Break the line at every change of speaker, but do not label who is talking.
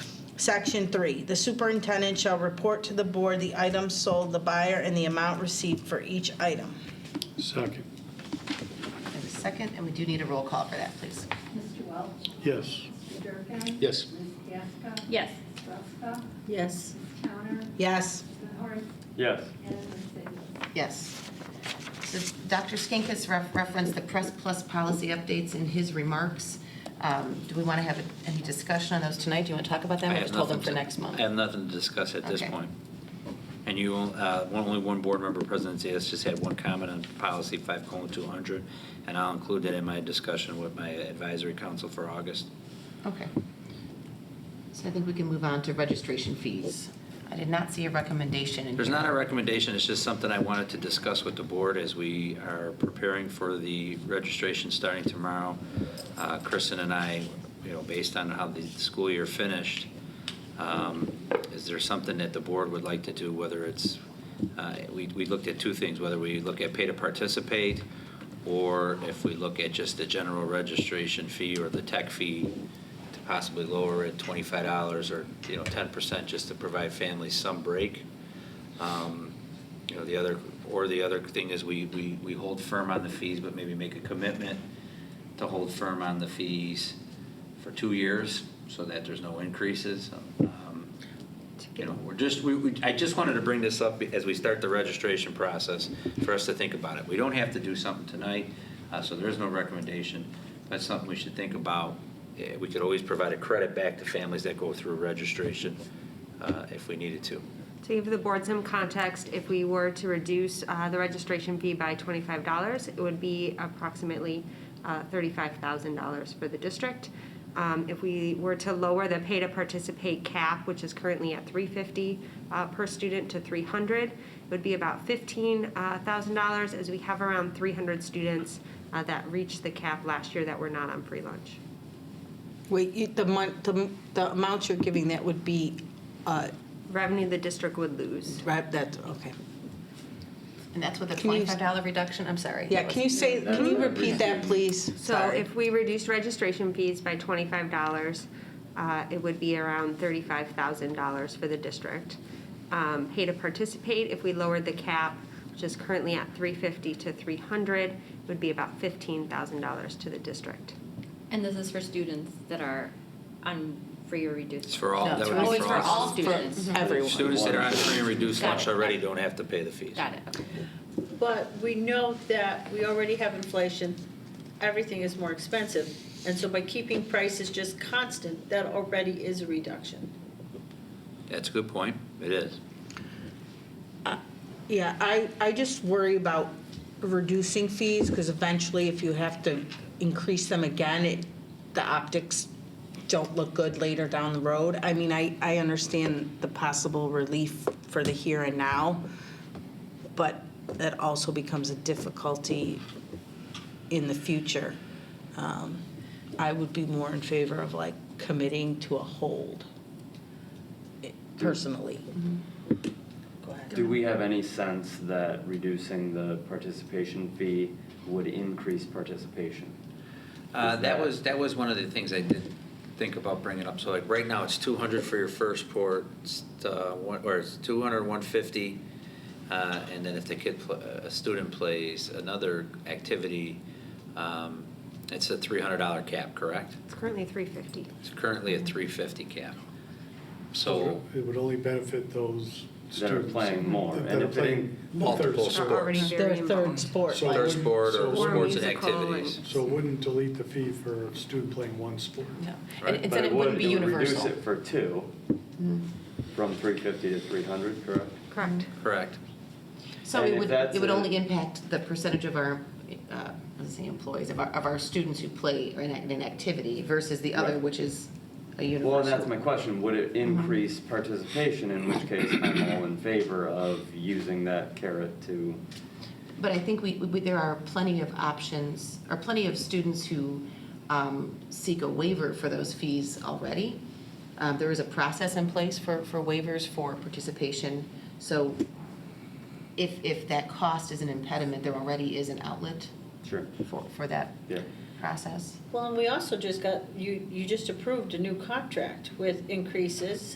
Section three, the superintendent shall report to the board the items sold, the buyer, and the amount received for each item.
Second.
And a second, and we do need a roll call for that, please.
Mr. Welch?
Yes.
Mr. Durkin?
Yes.
Ms. Gasko?
Yes.
Ms. Ruska?
Yes.
Ms. Towner?
Yes.
Ms. Horst?
Yes.
And Ms. Sigley.
Yes. So Dr. Skinkis ref- referenced the Press Plus policy updates in his remarks. Um, Do we want to have any discussion on those tonight? Do you want to talk about them?
I
or
have
just hold them
nothing
for
to-
next month?
I have nothing to discuss at this
Okay.
point. And you, uh, one- only one board member presidency has just had one comment on policy 5:200, and I'll include that in my discussion with my advisory council for August.
Okay. So I think we can move on to registration fees. I did not see a recommendation in
There's
here.
not a recommendation, it's just something I wanted to discuss with the board as we are preparing for the registration starting tomorrow. Uh, Kristen and I, you know, based on how the school year finished, um, is there something that the board would like to do, whether it's, uh, we we looked at two things, whether we look at pay to participate, or if we look at just the general registration fee or the tech fee to possibly lower it $25 or, you know, 10% just to provide families some break. Um, You know, the other, or the other thing is we, we, we hold firm on the fees, but maybe make a commitment to hold firm on the fees for two years so that there's no increases. Um, You know, we're just, we, we, I just wanted to bring this up as we start the registration process for us to think about it. We don't have to do something tonight, uh, so there is no recommendation. That's something we should think about. Eh, We could always provide a credit back to families that go through registration, uh, if we needed to.
To give the board some context, if we were to reduce uh, the registration fee by $25, it would be approximately uh, $35,000 for the district. Um, If we were to lower the pay to participate cap, which is currently at $350 uh, per student to $300, it would be about $15,000 as we have around 300 students uh, that reached the cap last year that were not on free lunch.
Wait, you- the mon, the, the amount you're giving, that would be, uh,
Revenue the district would lose.
right, that's, okay.
And that's with a
Can you-
$25 reduction? I'm sorry.
Yeah, can you say, can you repeat that, please?
So if we reduce registration fees by twenty-five dollars, uh, it would be around thirty-five thousand dollars for the district. Um, pay to participate, if we lowered the cap, which is currently at three fifty to three hundred, would be about fifteen thousand dollars to the district.
And this is for students that are on free or reduced.
It's for all,
No,
that
it's
would
Oh,
be
it's for all students.
For everyone.
Students that are on free and reduced
Got
lunch
it.
already don't have to pay the fees.
Got it, okay.
But we know that we already have inflation, everything is more expensive, and so by keeping prices just constant, that already is a reduction.
That's a good point, it is.
Yeah, I, I just worry about reducing fees, because eventually if you have to increase them again, it, the optics don't look good later down the road. I mean, I, I understand the possible relief for the here and now, but that also becomes a difficulty in the future. Um, I would be more in favor of like committing to a hold, eh, personally. Go ahead.
Do we have any sense that reducing the participation fee would increase participation?
Uh, That was, that was one of the things I did think about bringing up. So like, right now, it's 200 for your first port, it's, uh, one- or it's 200, 150, uh, and then if the kid, pl- a student plays another activity, um, it's a $300 cap, correct?
It's currently three fifty.
It's currently a 350 cap. So
It would only benefit those students.
That are playing more,
that
and
are
if they-
playing
Multiple
third
sports.
Are already
Sports.
very
Their third
involved.
sport.
So
other
wouldn't-
sport or
so-
sports and
musical and-
activities.
So it wouldn't delete the fee for a student playing one sport.
No.
Right.
And it said it wouldn't be
But
universal. Mm.
it would, it would reduce it for two, from 350 to 300, correct?
Correct.
Correct.
So
And
it
if
would,
that's
it would
a-
only impact the percentage of our, uh, let's say employees, of our, of our students who play in an in an activity versus the other,
Right.
which is a universal. Mm-hmm.
Well, and that's my question, would it increase participation, in which case I'm all in favor of using that carrot to,
But I think we, we, there are plenty of options, or plenty of students who um, seek a waiver for those fees already. Um, There is a process in place for, for waivers for participation. So if, if that cost is an impediment, there already is an outlet
sure,
for, for that
yeah.
process.
Well, and we also just got, you, you just approved a new contract with increases